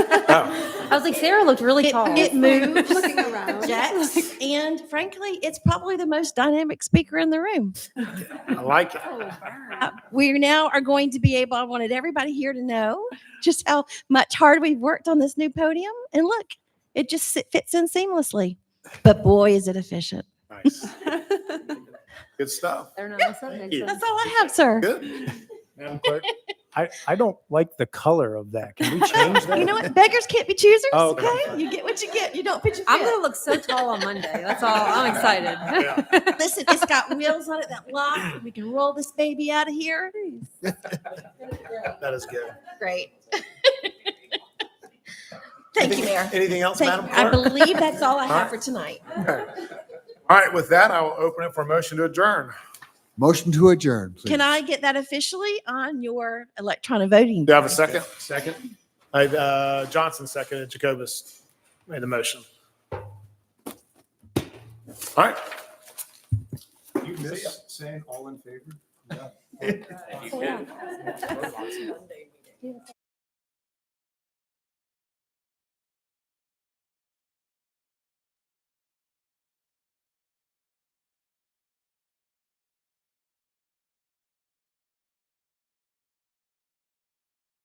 I was like, Sarah looked really It, tall. it moves. Looking around. Jax, and frankly, it's probably the most dynamic speaker in the room. I like it. Uh, We now are going to be able, I wanted everybody here to know just how much hard we've worked on this new podium. And look, it just sit- fits in seamlessly. But boy, is it efficient. Nice. Good stuff. They're not that's not Thank makes you. sense. That's all I have, sir. Good. Madam Clerk, I, I don't like the color of that. Can we change that? You know what? Beggars can't be choosers. Oh, Okay. okay. You get what you get. You don't pitch. I'm gonna look so tall on Monday. That's all. I'm excited. Listen, it's got wheels on it that lock. We can roll this baby out of here. That is good. Great. Thank you, Mayor. Anything else, Thank Madam you. I Clerk? believe that's all I have Alright. for tonight. All right, with that, I will open it for a motion to adjourn. Motion to adjourn, please. Can I get that officially on your electronic voting? Do I have a second? Second. Uh, Johnson seconded, Jacobus made the motion. All right. You miss saying all in favor?